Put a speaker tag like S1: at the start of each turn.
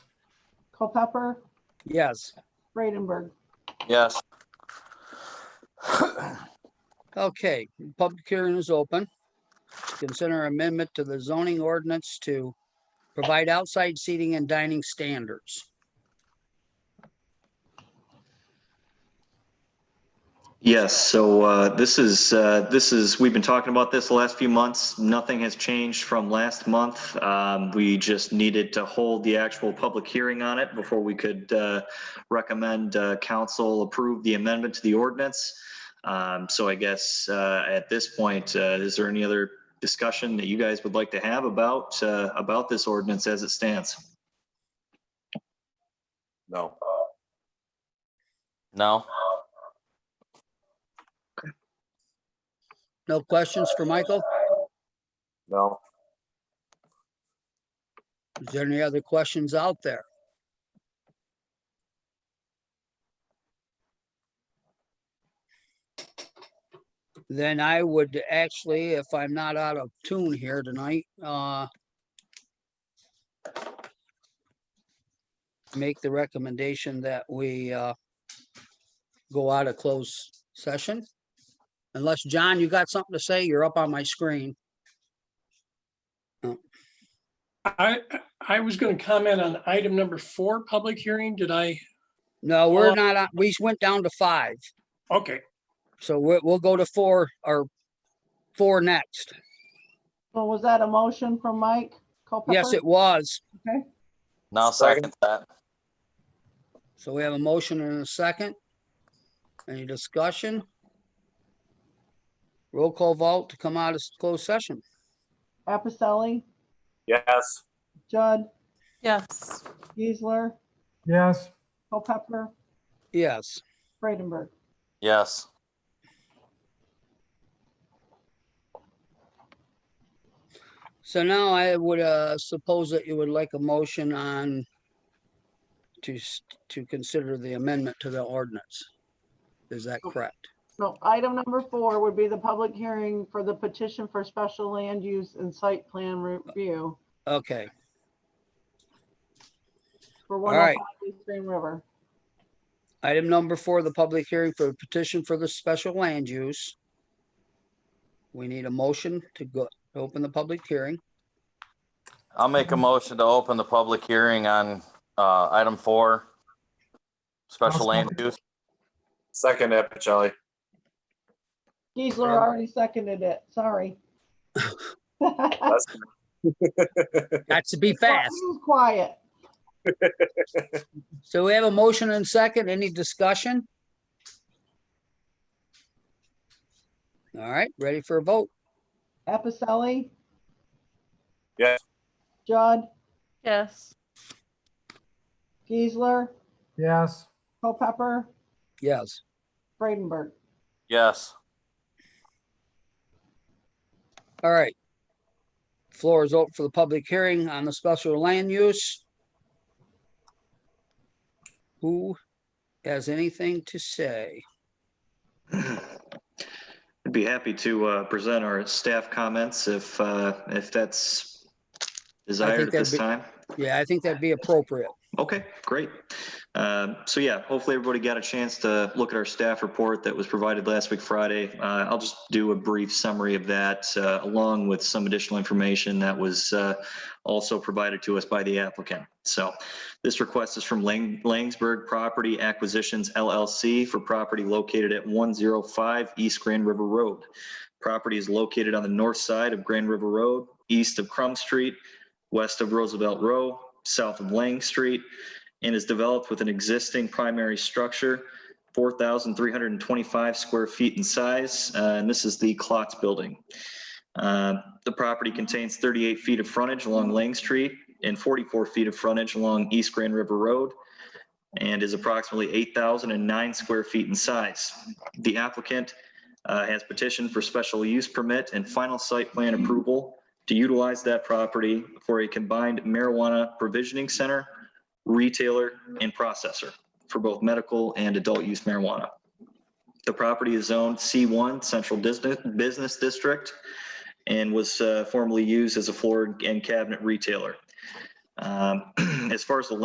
S1: Culpepper,
S2: Yes.
S1: Freidenberg.
S3: Yes.
S2: Okay, public hearing is open. Consider amendment to the zoning ordinance to provide outside seating and dining standards.
S4: Yes, so uh, this is, uh, this is, we've been talking about this the last few months. Nothing has changed from last month. Um, We just needed to hold the actual public hearing on it before we could uh, recommend uh, council approve the amendment to the ordinance. Um, So I guess uh, at this point, uh, is there any other discussion that you guys would like to have about, uh, about this ordinance as it stands?
S3: No. No.
S2: No questions for Michael?
S3: No.
S2: Is there any other questions out there? Then I would actually, if I'm not out of tune here tonight, uh, make the recommendation that we, uh, go out of closed session. Unless, John, you got something to say? You're up on my screen.
S5: I, I was going to comment on item number four, public hearing. Did I?
S2: No, we're
S5: Uh,
S2: not, on- we went down to five.
S5: Okay,
S2: So we'll, we'll go to four or four next.
S1: Well, was that a motion from Mike Culpepper?
S2: Yes, it was.
S3: Now second that.
S2: So we have a motion and a second. Any discussion? Roll call vote to come out of s- closed session.
S1: Appicelli,
S3: Yes.
S1: Judd,
S6: Yes.
S1: Geisler,
S7: Yes.
S1: Culpepper,
S2: Yes.
S1: Freidenberg.
S3: Yes.
S2: So now I would uh, suppose that you would like a motion on to, s- to consider the amendment to the ordinance. Is that correct?
S1: So item number four would be the public hearing for the petition for special land use and site plan review
S2: Okay,
S1: for
S2: right.
S1: 105 East Green River.
S2: item number four, the public hearing for the petition for the special land use. We need a motion to go, to open the public hearing.
S3: I'll make a motion to open the public hearing on uh, item four. Special land use. Second, Epicelli.
S1: Geisler already seconded it, sorry. Well,
S2: That's to be
S1: he
S2: fast.
S1: was Quiet.
S2: So we have a motion and second. Any discussion? All right, ready for a vote?
S1: Appicelli?
S3: Yes.
S1: Judd,
S6: Yes.
S1: Geisler,
S7: Yes.
S1: Culpepper,
S2: Yes.
S1: Freidenberg.
S3: Yes.
S2: All right. Floor is open for the public hearing on the special land use. Who has anything to say?
S4: I'd be happy to uh, present our staff comments if, uh, if that's desired at
S2: that'd
S4: this
S2: be-
S4: time.
S2: Yeah, I think that'd be appropriate.
S4: Okay, great. Um, So yeah, hopefully everybody got a chance to look at our staff report that was provided last week Friday. Uh, I'll just do a brief summary of that uh, along with some additional information that was uh, also provided to us by the applicant. So this request is from Lang- Langsberg Property Acquisitions LLC for property located at 105 East Grand River Road. Property is located on the north side of Grand River Road, east of Crum Street, west of Roosevelt Row, south of Lang Street, and is developed with an existing primary structure, 4,325 square feet in size, uh, and this is the Klotz Building. Uh, The property contains 38 feet of frontage along Lang Street and 44 feet of frontage along East Grand River Road, and is approximately 8,009 square feet in size. The applicant uh, has petitioned for special use permit and final site plan approval to utilize that property for a combined marijuana provisioning center, retailer, and processor for both medical and adult use marijuana. The property is zoned C1 Central Dis- Business District and was uh, formerly used as a floor and cabinet retailer. Um, As far as the